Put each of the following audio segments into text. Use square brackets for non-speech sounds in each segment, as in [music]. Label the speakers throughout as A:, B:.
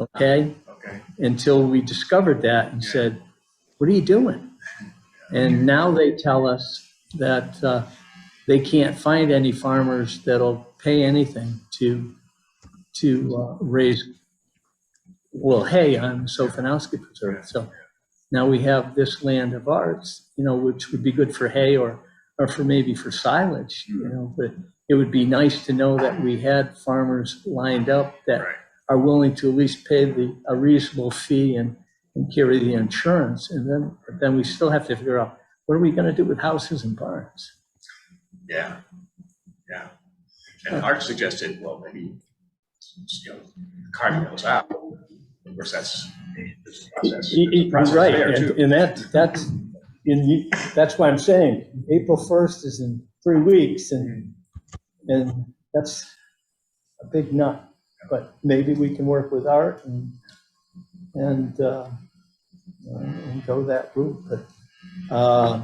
A: okay?
B: Okay,
A: until we discovered that and
B: Yeah.
A: said, what are you doing? And now they tell us that uh, they can't find any farmers that'll pay anything to, to uh, raise, well, hay on the Sofinowski Preserve. So now we have this land of ours, you know, which would be good for hay or, or for maybe for silage, you know, but it would be nice to know that we had farmers lined up that
B: right,
A: are willing to at least pay the, a reasonable fee and, and carry the insurance. And then, but then we still have to figure out, what are we gonna do with houses and barns?
B: yeah, yeah. And Art suggested, well, maybe, you know, carving those out, of course, that's this process.
A: You're
B: process
A: Right,
B: there,
A: and,
B: too.
A: and that, that's, and you, that's why I'm saying, April first is in three weeks and, and that's a big nut. But maybe we can work with Art and, and, uh, uh, and go that route, but, uh,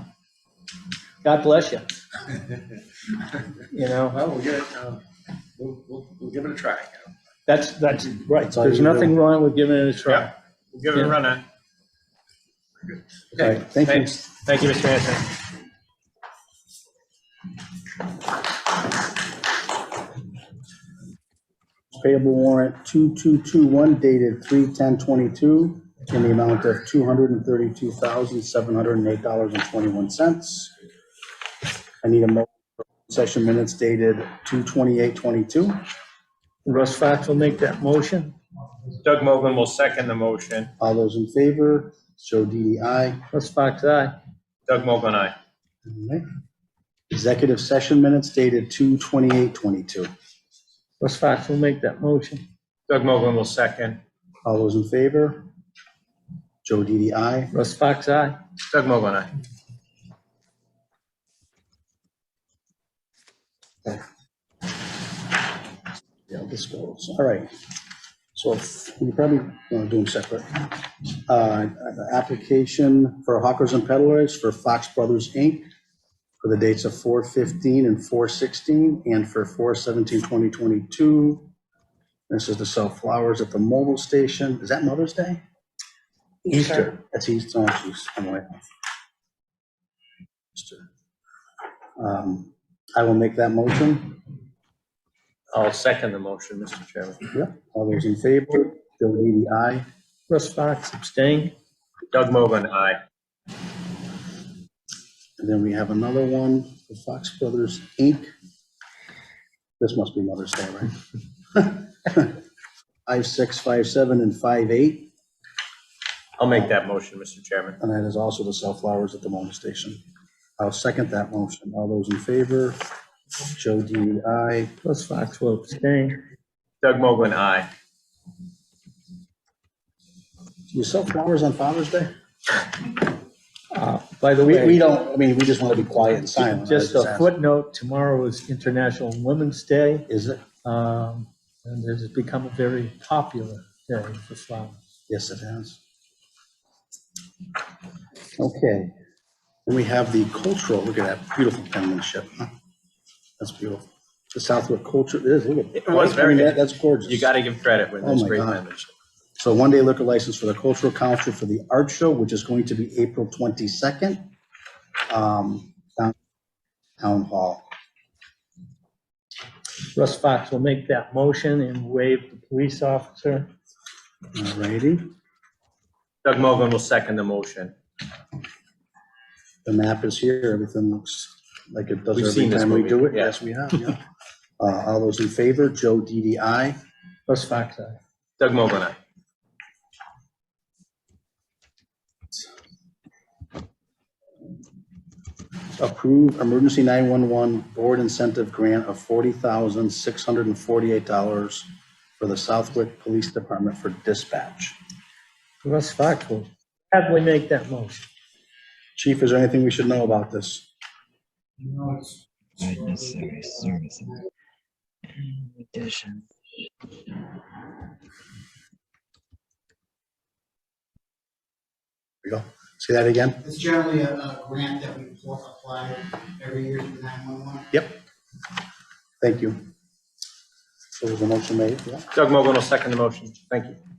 A: God bless you, you know?
B: Well, we'll get it, uh, we'll, we'll, we'll give it a try. you know.
A: That's, that's right.
C: all
A: There's
C: you can
A: nothing wrong with giving it a try.
B: Yeah. We'll give it a
A: Yeah.
B: run on. Good.
A: All
B: Okay,
A: right, thank you.
B: thanks.
D: Thank you, Mr. Hanson.
C: Payable warrant 2221 dated 3/10/22 in the amount of $232,708.21. I need a motion for session minutes dated 2/28/22.
A: Russ Fox will make that motion.
D: Doug Mogul will second the motion.
C: All those in favor, Joe Didi, aye.
A: Russ Fox, aye.
D: Doug Mogul, and I.
C: All right. Executive session minutes dated 2/28/22.
A: Russ Fox will make that motion.
D: Doug Mogul will second.
C: All those in favor, Joe Didi, aye.
A: Russ Fox, aye.
D: Doug Mogul, and I.
C: Yeah, this goes, all right. So if- we probably want to do them separate. Uh, Application for hawkers and peddlers for Fox Brothers, Inc. for the dates of 4/15 and 4/16 and for 4/17/2022. This is to sell flowers at the mobile station. Is that Mother's Day? Easter. That's Easter, oh, jeez, I'm away. Easter. Um, I will make that motion.
D: I'll second the motion, Mr. Chairman.
C: Yep, all those in favor, Joe Didi, aye.
A: Russ Fox abstain.
D: Doug Mogul, and I.
C: And then we have another one, the Fox Brothers, Inc. This must be Mother's Day, right? [laughs] Five, six, five, seven, and five, eight,
D: I'll make that motion, Mr. Chairman.
C: and that is also to sell flowers at the mobile station. I'll second that motion. All those in favor, Joe Didi, aye.
A: Russ Fox will abstain.
D: Doug Mogul, and I.
C: Do you sell flowers on Father's Day?
A: Uh, By the
C: We, we
A: way,
C: don't, I mean, we just want to be quiet and silent. I
A: just
C: was
A: a
C: asking.
A: footnote, tomorrow is International Women's Day.
C: Is it?
A: um, And it has become a very popular day for flowers.
C: Yes, it has. Okay. And we have the cultural, look at that beautiful penmanship. huh? That's beautiful. The Southwick culture, it is, look at.
D: It was very
C: I mean, that-
D: good.
C: That's gorgeous.
D: You got to give credit when
C: Oh
D: there's
C: my
D: great
C: God.
D: members.
C: So one day liquor license for the cultural council for the art show, which is going to be April 22nd. um, Town Town Hall.
A: Russ Fox will make that motion and waive the police officer.
C: All righty.
D: Doug Mogul will second the motion.
C: The map is here, everything looks like it does
D: We've
C: every
D: seen this
C: time we
D: movie,
C: do it.
D: yeah.
C: Yes, we have, yeah. Uh, All those in favor, Joe DDI.
A: Russ Fox, aye.
D: Doug Mogul, and I.
C: approve emergency 911 board incentive grant of $40,648 for the Southwick Police Department for dispatch.
A: Russ Fox will happily make that motion.
C: Chief, is there anything we should know about this?
E: Unnecessary services. In addition.
C: Here we go. Say that again?
F: It's generally a, a grant that we pl- apply every year to the 911.
C: Thank you. So was the motion made? Yeah.
D: Doug Mogul will second the motion. Thank you.